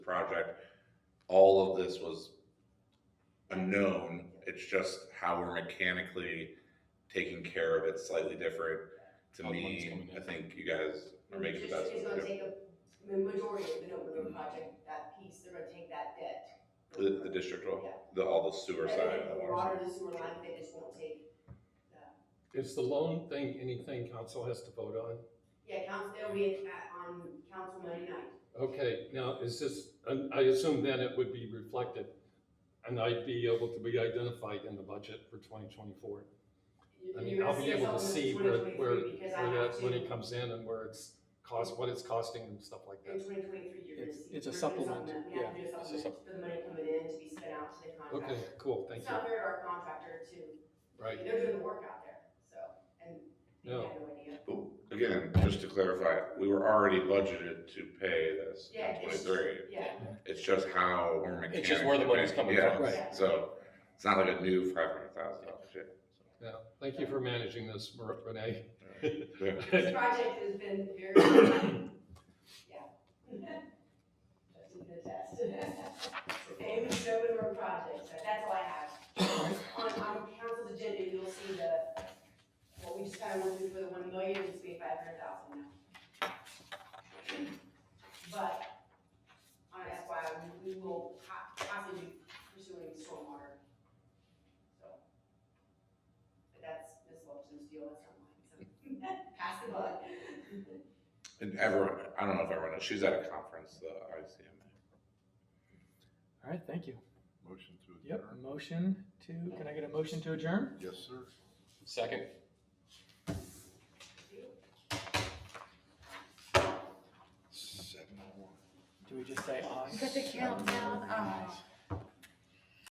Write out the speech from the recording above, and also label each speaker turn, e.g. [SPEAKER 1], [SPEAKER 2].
[SPEAKER 1] project. All of this was unknown. It's just how we're mechanically taking care of it slightly different. To
[SPEAKER 2] How the money's
[SPEAKER 1] me,
[SPEAKER 2] coming in.
[SPEAKER 1] I think you guys are making the best.
[SPEAKER 3] It's
[SPEAKER 1] of
[SPEAKER 3] gonna
[SPEAKER 1] it.
[SPEAKER 3] take a, the majority of the Nova Road project, that piece, they're gonna take that debt.
[SPEAKER 1] The, the district will,
[SPEAKER 3] Yeah.
[SPEAKER 1] the, all the sewer
[SPEAKER 3] But
[SPEAKER 1] side of the water.
[SPEAKER 3] Water, the sewer line, they just won't take,
[SPEAKER 4] Is the loan thing anything council has to vote on?
[SPEAKER 3] yeah, council, they'll be at- on council Monday night.
[SPEAKER 4] Okay, now, is this, and I assume then it would be reflected, and I'd be able to be identified in the budget for twenty twenty-four.
[SPEAKER 3] You-
[SPEAKER 4] I
[SPEAKER 3] you're
[SPEAKER 4] mean,
[SPEAKER 3] gonna
[SPEAKER 4] I'll
[SPEAKER 3] us
[SPEAKER 4] be able to
[SPEAKER 3] on the
[SPEAKER 4] see where,
[SPEAKER 3] 2023
[SPEAKER 4] where,
[SPEAKER 3] because I
[SPEAKER 4] where
[SPEAKER 3] have
[SPEAKER 4] that money
[SPEAKER 3] to-
[SPEAKER 4] comes in and where it's cost, what it's costing and stuff like
[SPEAKER 3] In
[SPEAKER 4] that.
[SPEAKER 3] twenty twenty-three, you're gonna
[SPEAKER 2] It's-
[SPEAKER 3] see.
[SPEAKER 2] it's a
[SPEAKER 3] we're gonna
[SPEAKER 2] supplement,
[SPEAKER 3] supplement- We have to do
[SPEAKER 2] yeah,
[SPEAKER 3] a
[SPEAKER 2] it's a
[SPEAKER 3] supplement, for the money coming in to be spent out to the
[SPEAKER 4] Okay,
[SPEAKER 3] contractor.
[SPEAKER 4] cool, thank
[SPEAKER 3] It's
[SPEAKER 4] you,
[SPEAKER 3] not fair to our contractor to,
[SPEAKER 4] right,
[SPEAKER 3] they're doing the work out there, so, and they
[SPEAKER 4] No.
[SPEAKER 3] had no idea.
[SPEAKER 1] But again, just to clarify, we were already budgeted to pay this
[SPEAKER 3] Yeah,
[SPEAKER 1] in
[SPEAKER 3] it's-
[SPEAKER 1] twenty-three.
[SPEAKER 3] Yeah,
[SPEAKER 1] It's just how we're mechanically.
[SPEAKER 2] It's just where the money's coming
[SPEAKER 1] yeah,
[SPEAKER 2] from.
[SPEAKER 3] Right.
[SPEAKER 1] So it's not like a new five hundred thousand dollar shit.
[SPEAKER 4] yeah, thank you for managing this, Mer- Renee.
[SPEAKER 3] this project has been very, yeah. That's a good test. Famous Sherwood Road project, so that's all I have. On, on council's agenda, you'll see the, what we just kind of went through for the one million, it's gonna be five hundred thousand now. But, on FYI, we we will po- possibly be pursuing stormwater. So, But that's Ms. Wilson's deal, that's not mine, so. Pass the buck.
[SPEAKER 1] And everyone, I don't know if everyone knows, she's at a conference, the ICMA.
[SPEAKER 2] All right, thank you.
[SPEAKER 5] Motion to
[SPEAKER 2] Yep,
[SPEAKER 5] adjourn?
[SPEAKER 2] motion to, can I get a motion to adjourn?
[SPEAKER 5] Yes, sir.
[SPEAKER 2] Second.
[SPEAKER 5] Seven oh one.
[SPEAKER 2] Do we just say aye?
[SPEAKER 6] Get the countdown, aye.